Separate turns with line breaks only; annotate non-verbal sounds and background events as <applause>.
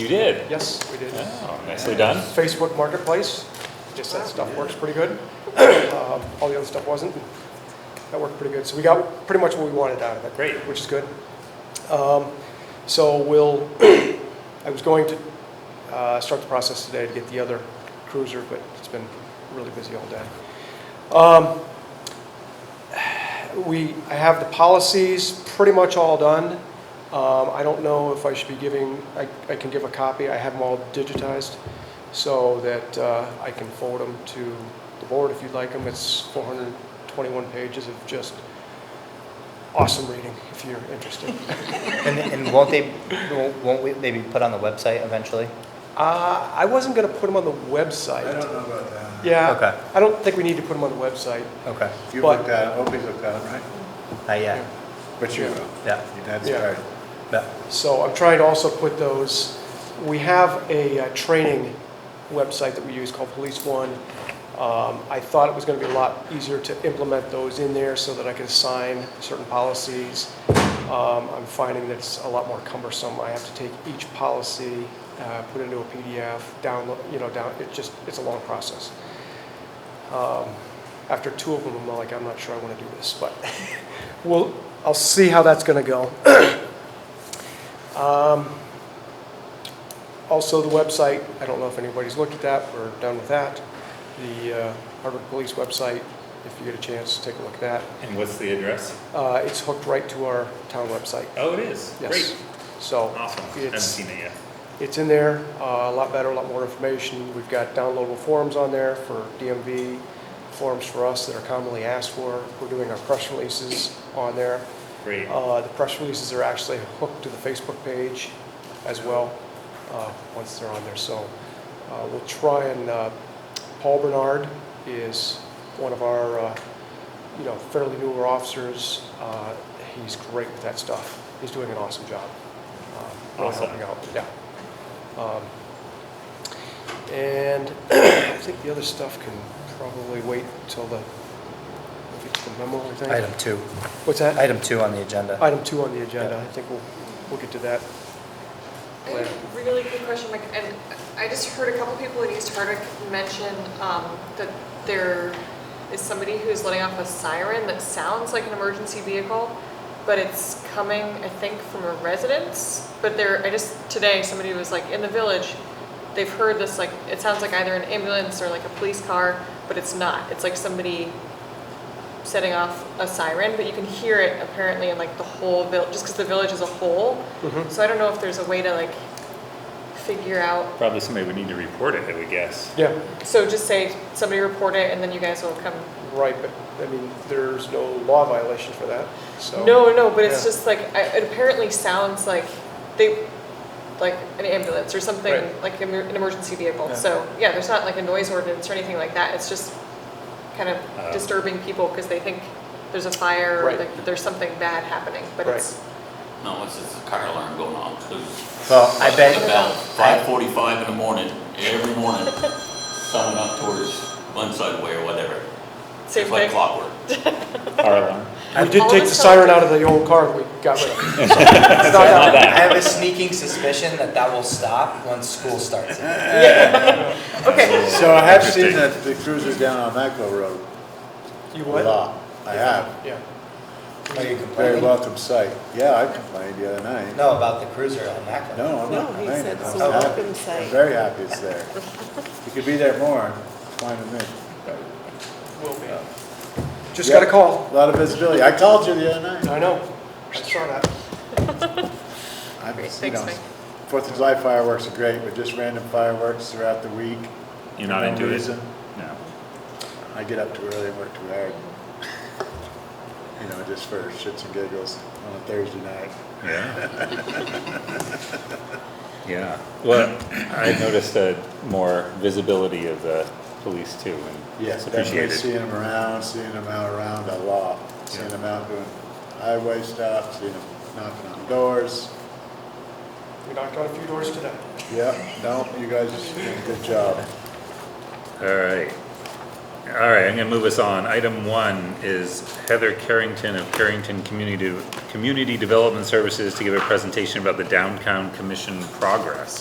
You did?
Yes, we did.
Oh, nicely done.
Facebook Marketplace, just that stuff works pretty good. Um, All the other stuff wasn't. That worked pretty good. So we got pretty much what we wanted out of it.
Great.
Which is good. Um, So we'll, <coughs> I was going to uh, start the process today to get the other cruiser, but it's been really busy all day. Um, We, I have the policies pretty much all done. Um, I don't know if I should be giving, I I can give a copy. I have them all digitized so that uh, I can forward them to the board if you'd like them. It's 421 pages of just awesome reading, if you're
<laughs>
interested.
And, and won't they, won't we, they be put on the website eventually?
Uh, I wasn't going to put them on the website.
I don't know about that.
Okay.
Yeah, I don't think we need to put them on the website.
Okay,
You
But-
looked at, it. Opie's looked at, it, right?
not yet,
But you will.
yeah,
That's
Yeah.
right.
yeah,
So I'm trying to also put those, we have a uh, training website that we use called Police One. Um, I thought it was going to be a lot easier to implement those in there so that I could assign certain policies. Um, I'm finding that it's a lot more cumbersome. I have to take each policy, uh, put it into a PDF, download, you know, down, it just, it's a long process. Um, After two of them, I'm like, I'm not sure I want to do this, but <laughs> we'll, I'll see how that's going to go. Um, Also, the website, I don't know if anybody's looked at that, we're done with that. The uh, Harvard Police website, if you get a chance, take a look at that.
And what's the address?
Uh, It's hooked right to our town website,
Oh, it is.
yes.
Great.
So
Awesome. I haven't
it's,
seen it yet.
it's in there, uh, a lot better, a lot more information. We've got downloadable forms on there for DMV, forms for us that are commonly asked for. We're doing our press releases on there.
Great.
Oh.
Uh, The press releases are actually hooked to the Facebook page as well, uh, once they're on there. So uh, we'll try and, uh, Paul Bernard is one of our, uh, you know, fairly newer officers. Uh, He's great with that stuff. He's doing an awesome job. um, really
Awesome.
helping out, yeah. Um, And <clears throat> I think the other stuff can probably wait till the, if it's the memo, I think.
item two,
What's that?
item two on the agenda.
Item two on the agenda, I think we'll, we'll get to that.
I had a really quick question, Mike, and I just heard a couple people in East Hardwick mention um, that there is somebody who's letting off a siren that sounds like an emergency vehicle, but it's coming, I think, from a residence. But there, I just, today, somebody was like, in the village, they've heard this, like, it sounds like either an ambulance or like a police car, but it's not. It's like somebody setting off a siren, but you can hear it apparently in like the whole village, just because the village is a whole.
Mm-hmm.
So I don't know if there's a way to like figure out.
Probably somebody would need to report it, I would guess.
Yeah,
So just say somebody report it, and then you guys will come.
right, but, I mean, there's no law violation for that, so.
No, no, but it's
Yeah.
just like I, it apparently sounds like they like an ambulance or something
Right.
like an emer- an emergency vehicle.
Yeah.
So yeah, there's not like a noise ordinance or anything like that. It's just kind of
Uh.
disturbing people because they think there's a fire
Right.
or like there's something bad happening, but it's
No, it's just a car alarm going on, because.
Well, I
<laughs>
bet,
About five forty-five in the morning, every morning, <laughs> someone up towards Glenside Way or whatever.
same
It's
thing.
like clockwork.
<laughs> Car <laughs> alarm.
We did take the siren out of the old car that we got rid of. So, it's not
Not
that-
I
that.
have a sneaking suspicion that that will stop once school starts.
Okay.
So I have seen
Interesting.
that the cruiser down on Maclo Road
You
a
what?
lot. I have.
Yeah,
Are you
Very
complaining? No,
welcome sight. Yeah, I complained the other night.
about the cruiser on Macklin.
No, I'm
No,
not
he
complaining.
said it's
I'm
a
happy.
welcome sight.
I'm very happy it's there. You could be there more, fine with me.
will be. Just
Yeah.
got a call.
A lot of visibility. I called you the other night.
I know, I saw that.
I'm-
Great,
you
thanks,
know,
Mike.
Fourth of July fireworks are great, but just random fireworks throughout the week.
You're not
for no
into it?
reason.
No.
I get up too early and work too hard. You know, just for shits and giggles on a Thursday night.
Yeah. Yeah. Well, I noticed uh more visibility of the police too, and
Yes,
it's
definitely
appreciated.
seeing them around, seeing them out around a lot, seeing
Yeah.
them out doing highway stuff, seeing them knocking on doors.
We knocked on a few doors today.
Yep, no, you guys did a good job.
All right. All right, I'm gonna move us on. Item one is Heather Carrington of Carrington Community, Community Development Services to give a presentation about the downtown commission progress.